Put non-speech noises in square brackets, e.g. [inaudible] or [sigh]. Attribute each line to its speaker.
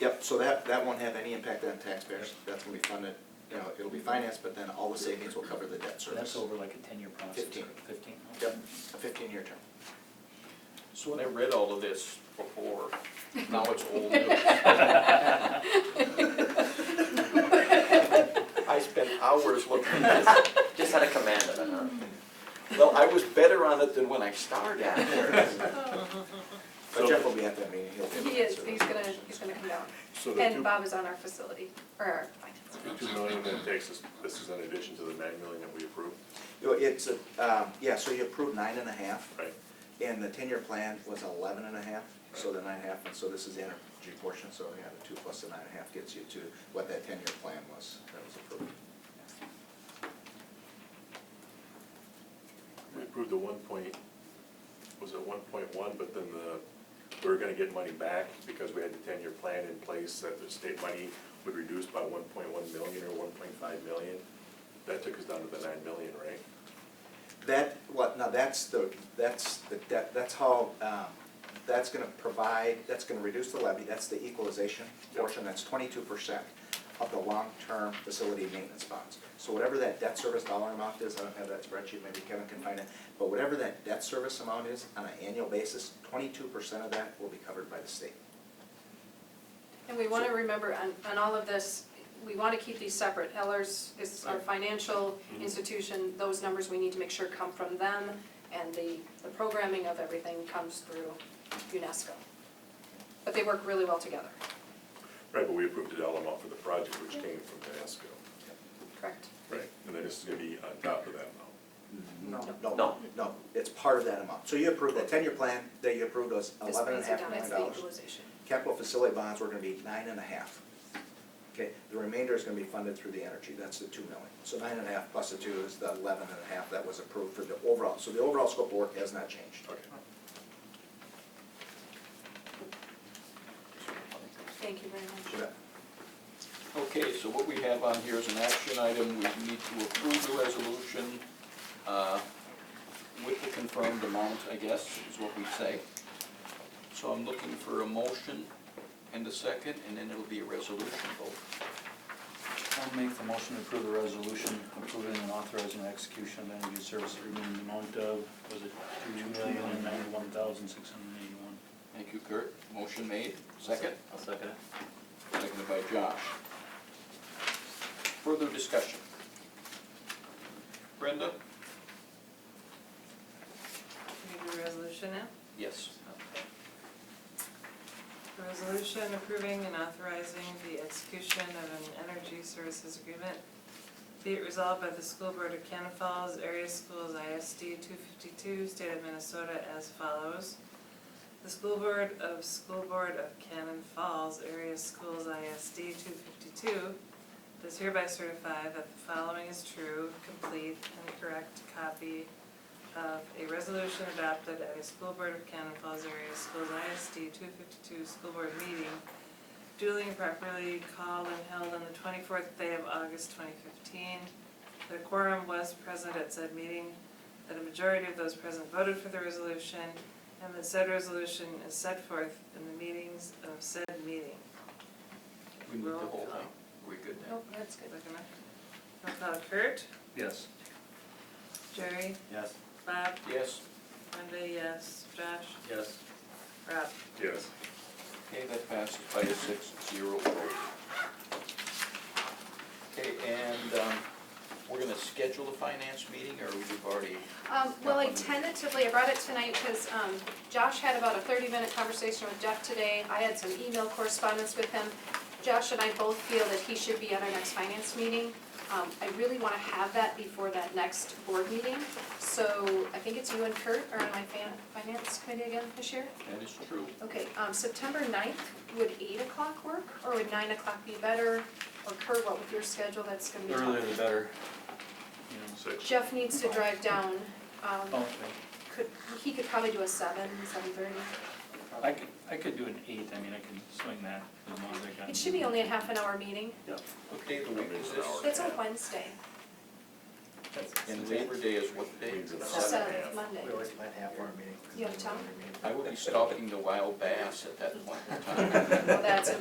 Speaker 1: Yep, so that, that won't have any impact on taxpayers, that's gonna be funded, you know, it'll be financed, but then all the savings will cover the debt
Speaker 2: So
Speaker 1: service.
Speaker 2: that's over like a ten-year process, or
Speaker 1: Fifteen.
Speaker 2: fifteen? okay.
Speaker 1: Yep, a fifteen-year term.
Speaker 3: So when I read all of this before, now it's old. I spent hours looking at [laughs] this.
Speaker 4: Just had a command of it, huh?
Speaker 3: Well, I was better on it than when I started.
Speaker 1: But Jeff will be at that meeting, he'll be. able to
Speaker 5: He is,
Speaker 1: answer
Speaker 5: he's
Speaker 1: those
Speaker 5: gonna,
Speaker 1: questions.
Speaker 5: he's gonna come down.
Speaker 6: So the
Speaker 5: And
Speaker 6: two,
Speaker 5: Bob is on our facility, or our finance.
Speaker 6: the two million that takes us, this is in addition to the nine million that we approved,
Speaker 1: You know, It's, a um, yeah, so you approved nine and a half,
Speaker 6: right?
Speaker 1: and the ten-year plan was eleven and a half, so the nine and a half, and so this is the energy portion, so yeah, the two plus the nine and a half gets you to what that ten-year plan was that was approved.
Speaker 6: We approved the one point, was it one point one, but then the, we were gonna get money back because we had the ten-year plan in place that the state money would reduce by one point one million or one point five million. That took us down to the nine million, right?
Speaker 1: That, what, now that's the, that's the, debt. that's how, um, that's gonna provide, that's gonna reduce the levy, that's the equalization
Speaker 6: Yep.
Speaker 1: portion, that's twenty-two percent of the long-term facility maintenance bonds. So whatever that debt service dollar amount is, I don't have that spreadsheet, maybe Kevin can find it, but whatever that debt service amount is on an annual basis, twenty-two percent of that will be covered by the state.
Speaker 5: And we wanna remember on, on all of this, we wanna keep these separate. Ellers is our financial
Speaker 6: Mhm.
Speaker 5: institution, those numbers we need to make sure come from them, and the, the programming of everything comes through UNESCO. But they work really well together,
Speaker 6: Right, but we approved the dollar amount for the project, which came from NASCO.
Speaker 5: correct?
Speaker 6: Right. And then this is gonna be on top of that amount.
Speaker 1: No, no,
Speaker 4: No.
Speaker 1: no, it's part of that amount. So you approved that ten-year plan that you approved was
Speaker 5: This
Speaker 1: eleven and a
Speaker 5: brings it
Speaker 1: half
Speaker 5: down
Speaker 1: million
Speaker 5: as
Speaker 1: dollars.
Speaker 5: the equalization.
Speaker 1: Capital facility bonds, we're gonna be nine and a half. Okay, the remainder is gonna be funded through the energy, that's the two million. So nine and a half plus the two is the eleven and a half that was approved for the overall, so the overall scope of work has not changed.
Speaker 6: Okay.
Speaker 5: Thank you very much.
Speaker 1: So that-
Speaker 3: Okay, so what we have on here is an action item, we need to approve the resolution uh, with the confirmed amount, I guess, is what we say. So I'm looking for a motion and a second, and then it'll be a resolution vote.
Speaker 2: [laughs] I'll make the motion to approve the resolution approving and authorizing the execution of energy service agreement in the amount of, was it two million and ninety-one thousand six hundred and eighty-one?
Speaker 3: Thank you, Kurt. Motion made, second,
Speaker 4: I'll second it.
Speaker 3: seconded by Josh. Further discussion? Brenda?
Speaker 7: Can we do a resolution now?
Speaker 3: Yes.
Speaker 7: Resolution approving and authorizing the execution of an energy services agreement. Be it resolved by the School Board of Cannon Falls Area Schools ISD two fifty-two, State of Minnesota as follows. The School Board of School Board of Cannon Falls Area Schools ISD two fifty-two does hereby certify that the following is true, complete, and correct copy of a resolution adopted at a school board of Cannon Falls area schools ISD two fifty-two school board meeting duly and properly called and held on the twenty-fourth day of August twenty fifteen. The quorum was present at said meeting, that a majority of those present voted for the resolution, and that said resolution is set forth in the meetings of said meeting.
Speaker 3: We moved the
Speaker 7: Roll
Speaker 3: whole
Speaker 7: call.
Speaker 3: thing. We good now?
Speaker 7: Nope, that's good. Looking up. Roll call Kurt,
Speaker 2: Yes.
Speaker 7: Jerry,
Speaker 4: Yes.
Speaker 7: Bob,
Speaker 3: Yes.
Speaker 7: Linda, yes, Josh,
Speaker 4: Yes.
Speaker 7: Rob.
Speaker 6: Yes.
Speaker 3: Okay, that passes by a six zero vote. Okay, and, um, we're gonna schedule the finance meeting, or we've already,
Speaker 5: Um, well, I tentatively, I brought it tonight because, um, Josh had about a thirty-minute conversation with Jeff today. I had some email correspondence with him. Josh and I both feel that he should be at our next finance meeting. Um, I really wanna have that before that next board meeting. So I think it's you and Kurt are on my fan, finance committee again this year?
Speaker 3: that is true.
Speaker 5: Okay, um, September 9th, would eight o'clock work, or would nine o'clock be better? Or Kurt, what with your schedule, that's gonna be
Speaker 2: The
Speaker 5: tough.
Speaker 2: earlier the better. You know,
Speaker 6: Six.
Speaker 5: Jeff needs to drive down, um,
Speaker 2: Okay,
Speaker 5: could, he could probably do a seven, seven thirty.
Speaker 2: I could, I could do an eight, I mean, I could swing that as long as I got.
Speaker 5: It should be only a half an hour meeting.
Speaker 3: What day of the week is this?
Speaker 5: That's on Wednesday,
Speaker 3: And Labor Day is what day?
Speaker 6: Means an hour.
Speaker 5: that's
Speaker 6: Seven
Speaker 5: uh,
Speaker 6: and a half.
Speaker 5: Monday.
Speaker 1: We always plan half our meeting.
Speaker 5: You have time?
Speaker 3: I will be stalking the wild bass at that point in time.
Speaker 5: Well, that's a